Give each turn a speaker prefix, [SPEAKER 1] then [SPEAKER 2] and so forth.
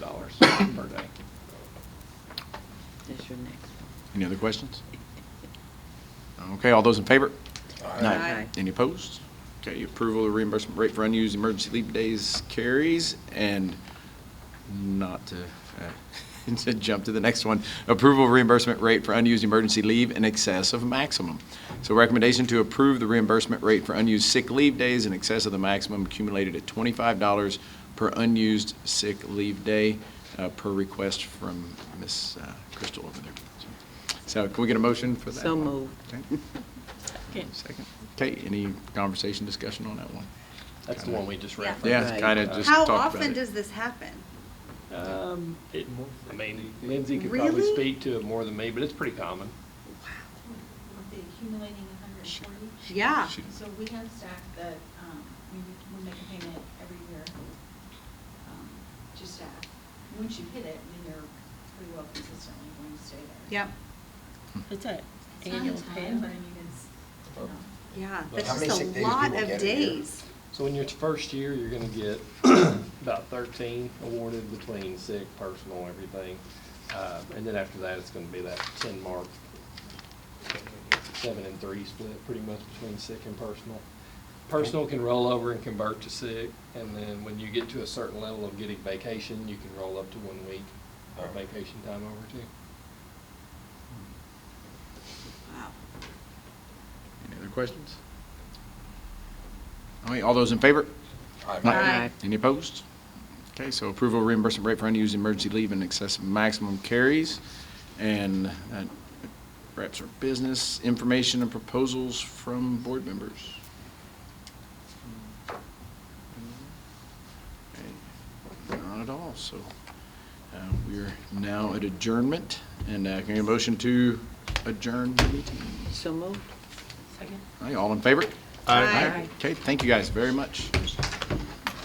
[SPEAKER 1] per day.
[SPEAKER 2] That's your next
[SPEAKER 3] Any other questions? Okay, all those in favor?
[SPEAKER 2] one. Aye.
[SPEAKER 3] Any opposed? Okay, approval of reimbursement rate for unused emergency leave days carries, and not to, uh, to jump to the next one, approval of reimbursement rate for unused emergency leave in excess of maximum. So recommendation to approve the reimbursement rate for unused sick leave days in excess of the maximum accumulated at twenty-five dollars per unused sick leave day, uh, per request from Ms. uh, Crystal over there. So can we get a motion for that?
[SPEAKER 2] So
[SPEAKER 3] one?
[SPEAKER 2] moved.
[SPEAKER 3] Okay. Second. Okay, any conversation, discussion on that one?
[SPEAKER 1] That's the one we just
[SPEAKER 4] Yeah.
[SPEAKER 1] referenced. Uh,
[SPEAKER 3] Yeah,
[SPEAKER 2] Right.
[SPEAKER 3] kind of just
[SPEAKER 4] How
[SPEAKER 3] talked about
[SPEAKER 4] often
[SPEAKER 3] it.
[SPEAKER 4] does this happen?
[SPEAKER 1] Um, it, I mean, Lindsay could
[SPEAKER 4] Really?
[SPEAKER 1] probably speak to it more than me, but it's pretty common.
[SPEAKER 5] We'll be accumulating a hundred and forty.
[SPEAKER 4] Yeah.
[SPEAKER 3] She-
[SPEAKER 5] So we have staff that, um, we, we make a payment every year, um, to staff. Once you hit it, then you're pretty well consistently going to stay there.
[SPEAKER 4] Yep.
[SPEAKER 2] It's an
[SPEAKER 5] It's not a
[SPEAKER 2] annual
[SPEAKER 5] ton, But I
[SPEAKER 2] payment.
[SPEAKER 5] mean, it's, you know,
[SPEAKER 4] Yeah,
[SPEAKER 1] But
[SPEAKER 4] that's
[SPEAKER 1] how many
[SPEAKER 4] just
[SPEAKER 6] sick
[SPEAKER 4] a
[SPEAKER 6] days
[SPEAKER 4] lot
[SPEAKER 6] do we
[SPEAKER 4] of
[SPEAKER 6] get a year?
[SPEAKER 4] days.
[SPEAKER 1] So in your first year, you're gonna get about thirteen awarded between sick, personal, everything. Uh, and then after that, it's gonna be that ten mark, seven and three split, pretty much between sick and personal. Personal can roll over and convert to sick, and then when you get to a certain level of getting vacation, you can roll up to one week of
[SPEAKER 6] Alright.
[SPEAKER 1] vacation time over too.
[SPEAKER 4] Wow.
[SPEAKER 3] Any other questions? All right, all those in favor?
[SPEAKER 4] Aye.
[SPEAKER 3] Any opposed? Okay, so approval of reimbursement rate for unused emergency leave in excess of maximum carries. And that wraps our business, information and proposals from board members. Okay, Not at all, so uh, we are now at adjournment. And uh, can I get a motion to adjourn the meeting?
[SPEAKER 2] So moved. Second.
[SPEAKER 3] All right, all in favor?
[SPEAKER 4] Aye.
[SPEAKER 3] Okay, thank you guys very much.